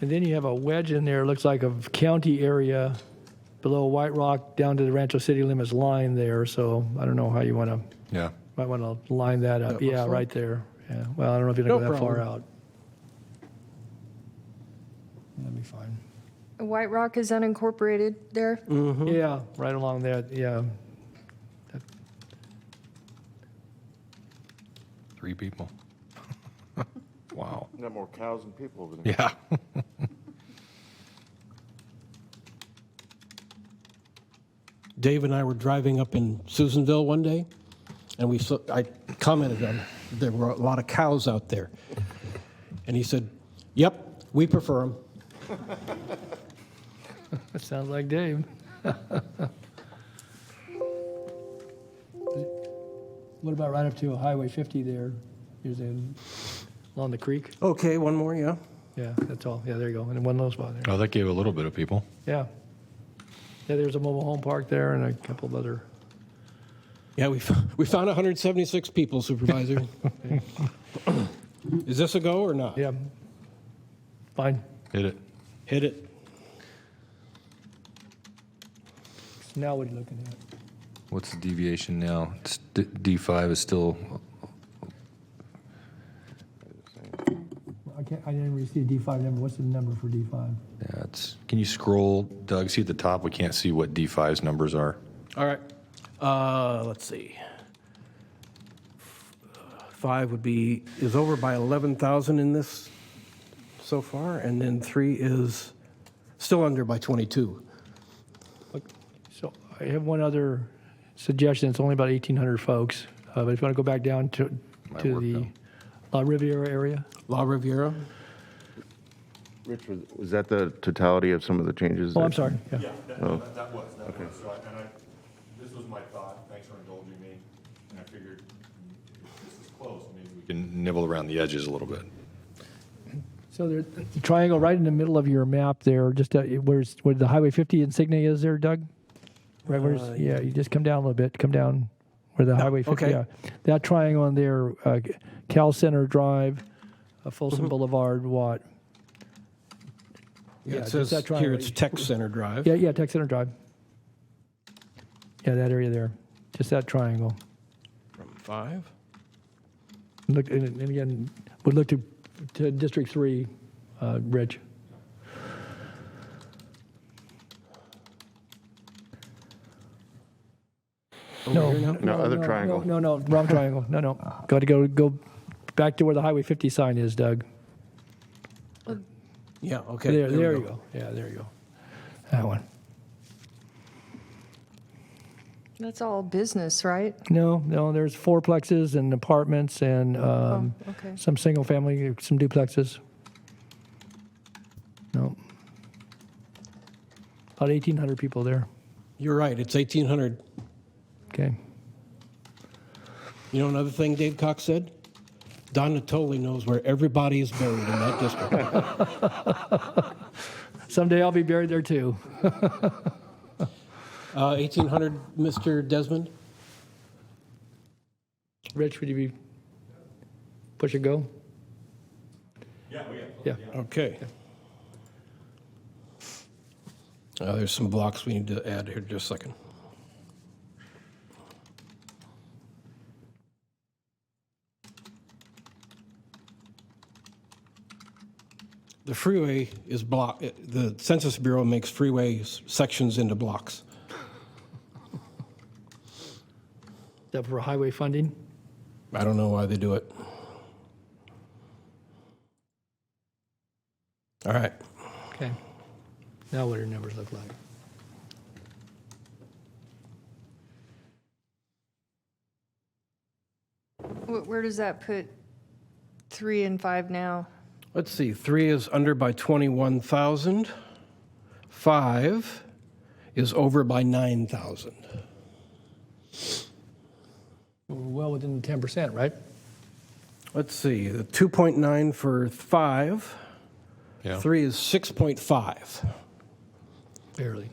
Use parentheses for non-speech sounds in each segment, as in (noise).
And then you have a wedge in there, looks like a county area below White Rock down to the Rancho City Limits line there. So I don't know how you want to, Yeah. might want to line that up. Yeah, right there. Yeah, well, I don't know if you're going to No go that far problem. out. That'd be fine. White Rock is unincorporated there. Yeah, right along that, yeah. Three people. wow. Got more cows than people over there. Yeah. Dave and I were driving up in Susanville one day, and we saw, I commented on there were a lot of cows out there, and he said, "Yep, we prefer them." That sounds like Dave. (laughs) What about right up to Highway 50 there? Is it along the creek? Okay, one more, yeah. Yeah, that's all. Yeah, there you go. And one little spot there. (laughs) Oh, that gave a little bit of people. Yeah. Yeah, there's a mobile home park there and a couple of other. Yeah, we f- we found 176 people, Supervisor. (laughs) Is this a go or not? Yeah. Fine. Hit it. Hit it. Now what are you looking at? What's the deviation now? It's D- D5 is still, I can't, I didn't really see a D5 number. What's the number for D5? yeah, it's, can you scroll, Doug? See at the top, we can't see what D5's numbers are. All right. Uh, let's see. Five would be, is over by 11,000 in this so far, and then three is Still under by 22. So I have one other suggestion. It's only about 1,800 folks. Uh, but if you want to go back down to, Might to work the La Riviera area, La Riviera. Richard, was that the totality of some of the changes? Oh, I'm that- sorry. Yeah. That, Oh. that that was, that was, so I, and I, this was my thought, thanks for indulging me, and I figured, if this is close, maybe we You can nibble around the edges a little bit. So there, the triangle right in the middle of your map there, just at, where's where the Highway 50 insignia is there, Doug? Right where's Uh, yeah, you just come down a little bit, come down where the Highway 50. okay. Yeah, that triangle on there, uh, Cal Center Drive, uh, Folsom Mm-hmm. Boulevard, what? Yeah, Yeah, it just says that here triangle. it's Tech Center Drive. Yeah, yeah, Tech Center Drive. Yeah, that area there, just that triangle. Five. Look and, and again, would look to to District Three, uh, Rich. No, here now? No, other triangle. No, no, no, (laughs) wrong triangle. No, no. Got to go go back to where the Highway 50 sign is, Doug. Yeah, okay. There, we there you go. Yeah, there you go. That one. That's all business, right? No, no. There's fourplexes and apartments and um, Oh, okay. some single family, some duplexes. No. About 1,800 people there. You're right, it's 1,800. Okay. You know another thing Dave Cox said? Don Natoli knows where everybody is buried in that district. (laughs) Someday I'll be buried there too. Uh, 1,800, Mr. Desmond? Rich, would you be push a go? Yeah, yeah. Okay. Uh, There's some blocks we need to add here, just a second. The freeway is block, uh, the Census Bureau makes freeway s- sections into blocks. Except for highway funding. I don't know why they do it. All right. Okay. Now what do your numbers look like? Wh- Where does that put three and five now? Let's see, three is under by 21,000. Five is over by 9,000. We're well within the ten percent, right? Let's see, the 2.9 for five. Yeah. Three is 6.5 Barely.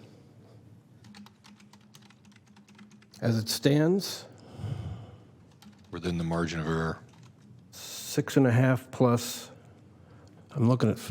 as it stands. Within the margin of error. Six and a half plus, I'm looking at